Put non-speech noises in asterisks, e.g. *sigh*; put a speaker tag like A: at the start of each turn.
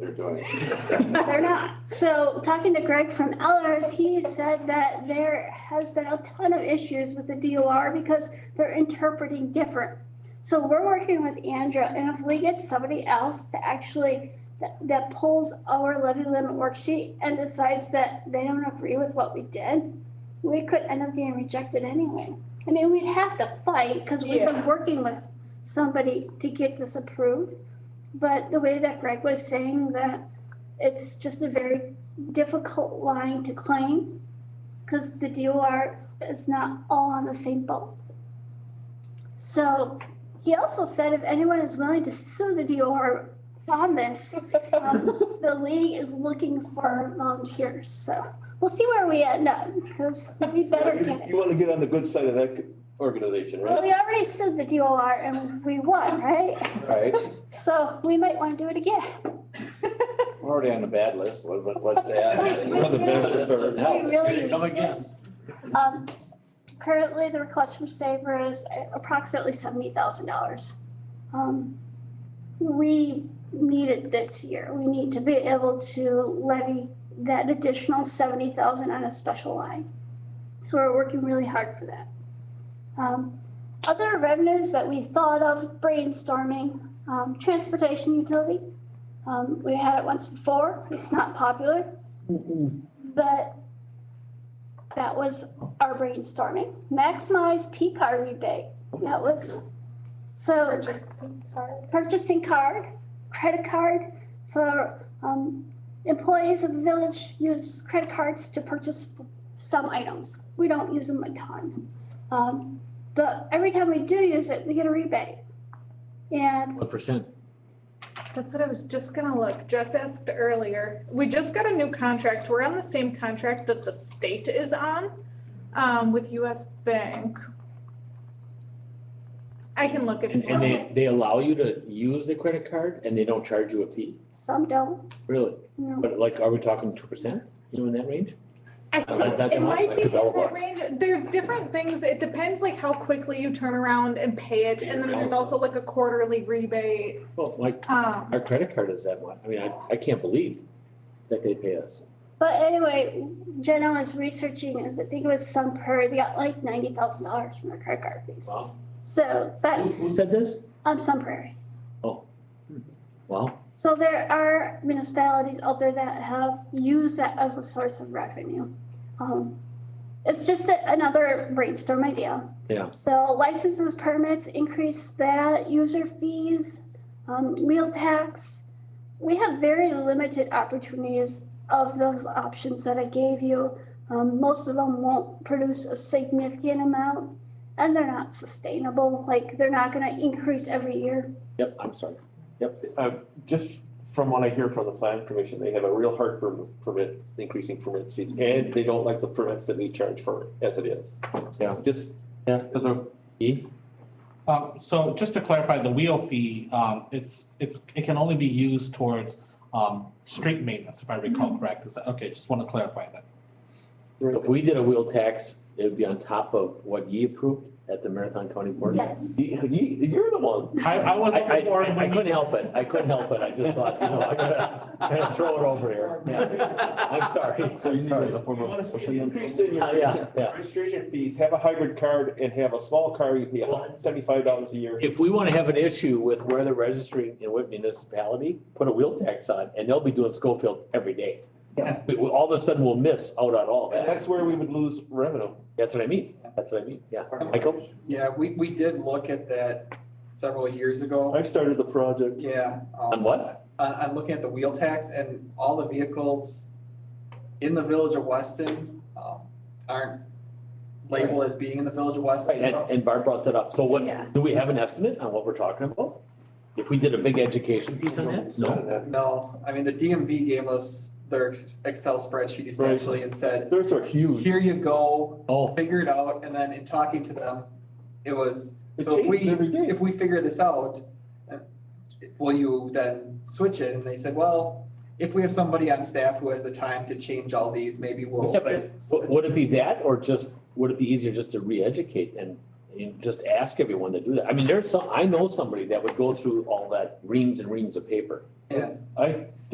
A: they're doing.
B: *laughs* They're not. So talking to Greg from Ellers, he said that there has been a ton of issues with the DOR because they're interpreting different. So we're working with Andrea, and if we get somebody else to actually, that, that pulls our levy limit worksheet and decides that they don't agree with what we did, we could end up getting rejected anyway. I mean, we'd have to fight because we've been working with somebody to get this approved. But the way that Greg was saying that it's just a very difficult line to claim because the DOR is not all on the same boat. So he also said if anyone is willing to sue the DOR on this, um, the league is looking for volunteers. So we'll see where we end up because we better get
A: You
B: it.
A: want to get on the good side of that organization,
B: Well,
A: right?
B: we already sued the DOR and we won, right?
A: Right,
B: So we might want to do it again.
A: we're already on the bad list, what, what, what's
B: Wait,
A: that?
B: wait,
A: We're on the bad list already.
B: We really
C: Come
B: need
C: again.
B: this. Um, currently, the request from Saver is uh, approximately seventy thousand dollars. Um, we need it this year. We need to be able to levy that additional seventy thousand on a special line. So we're working really hard for that. Um, other revenues that we thought of brainstorming, um, transportation utility. Um, we had it once before. It's not popular. But that was our brainstorming. Maximize P card rebate. That was, so purchasing card, credit card. So um, employees of the village use credit cards to purchase some items. We don't use them a ton. Um, but every time we do use it, we get a rebate. And
C: What percent?
D: That's what I was just gonna look, Jess asked earlier, we just got a new contract, we're on the same contract that the state is on, um, with US Bank. I can look at.
C: And, and they, they allow you to use the credit card and they don't charge you a fee?
B: some don't,
C: Really?
B: you know.
C: But like, are we talking two percent? You know, in that range?
D: I
C: I like that
D: think it
C: one.
D: might be in
A: Develop
D: that
A: us.
D: range, there's different things, it depends like how quickly you turn around and pay it, and then there's also like a quarterly rebate,
C: Well, like,
D: um,
C: our credit card is that one. I mean, I, I can't believe that they pay us.
B: But anyway, Jenna was researching, as I think it was some per, they got like ninety thousand dollars from their credit card fees.
C: Wow.
B: So
C: Who, who
B: that's,
C: said this?
B: um, Sun Prairie.
C: Wow,
B: So there are municipalities out there that have used that as a source of revenue. Um, it's just a- another brainstorm idea.
C: Yeah.
B: So licenses, permits, increase that, user fees, um, wheel tax. We have very limited opportunities of those options that I gave you. Um, most of them won't produce a significant amount and they're not sustainable, like they're not gonna increase every year.
C: yep, I'm sorry.
A: Uh, just from what I hear from the plan commission, they have a real hard for permit, increasing permit fees, and they don't like the permits that we charge for it, as it is.
C: Yeah.
A: Just,
C: Yeah.
A: as a,
C: E?
E: Um, so just to clarify, the wheel fee, um, it's, it's, it can only be used towards, um, street maintenance, if I
C: Mm-hmm.
E: recall correct, is that, okay, just wanna clarify that.
C: So if we did a wheel tax, it would be on top of what ye approved at the Marathon County Board?
B: Yes.
A: you, you- you're the one.
E: I, I was
C: I,
E: on the board
C: I, I
E: when
C: couldn't help it. I couldn't help it. I just thought, you know, I gotta, gotta throw it over here. Yeah. I'm sorry.
A: *laughs* So you need to-
F: You wanna see an increase in
C: Yeah,
F: your
C: yeah.
F: registration fees,
A: Please have a hybrid card and have a small car, you pay seventy-five dollars a year.
C: If we want to have an issue with where they're registering in what municipality, put a wheel tax on and they'll be doing Schofield every day.
E: Yeah.
C: We, we- all of a sudden we'll miss out on all
A: And
C: that.
A: that's where we would lose revenue.
C: That's what I mean. That's what I mean. Yeah. Michael?
G: Yeah, we, we did look at that several years ago.
A: I started the project.
G: Yeah. um,
C: On what?
G: On, on looking at the wheel tax and all the vehicles in the village of Weston, um, aren't labeled as being in the village of Weston.
C: And,
G: so-
C: and Barb brought that up. So what,
D: Yeah.
C: do we have an estimate on what we're talking about? If we did a big education piece on that? No.
G: No, I mean, the DMV gave us their ex- Excel spreadsheet essentially and said,
A: Those are huge.
G: here you go,
C: Oh,
G: figure it out, and then in talking to them, it was,
A: It
G: so if we,
A: changes every day.
G: if we figure this out, uh, will you then switch it? And they said, well, if we have somebody on staff who has the time to change all these, maybe we'll.
C: Yeah, but
G: switch."
C: w- would it be that or just, would it be easier just to re-educate and, and just ask everyone to do that? I mean, there's some, I know somebody that would go through all that reams and reams of paper.
G: Yes.
A: I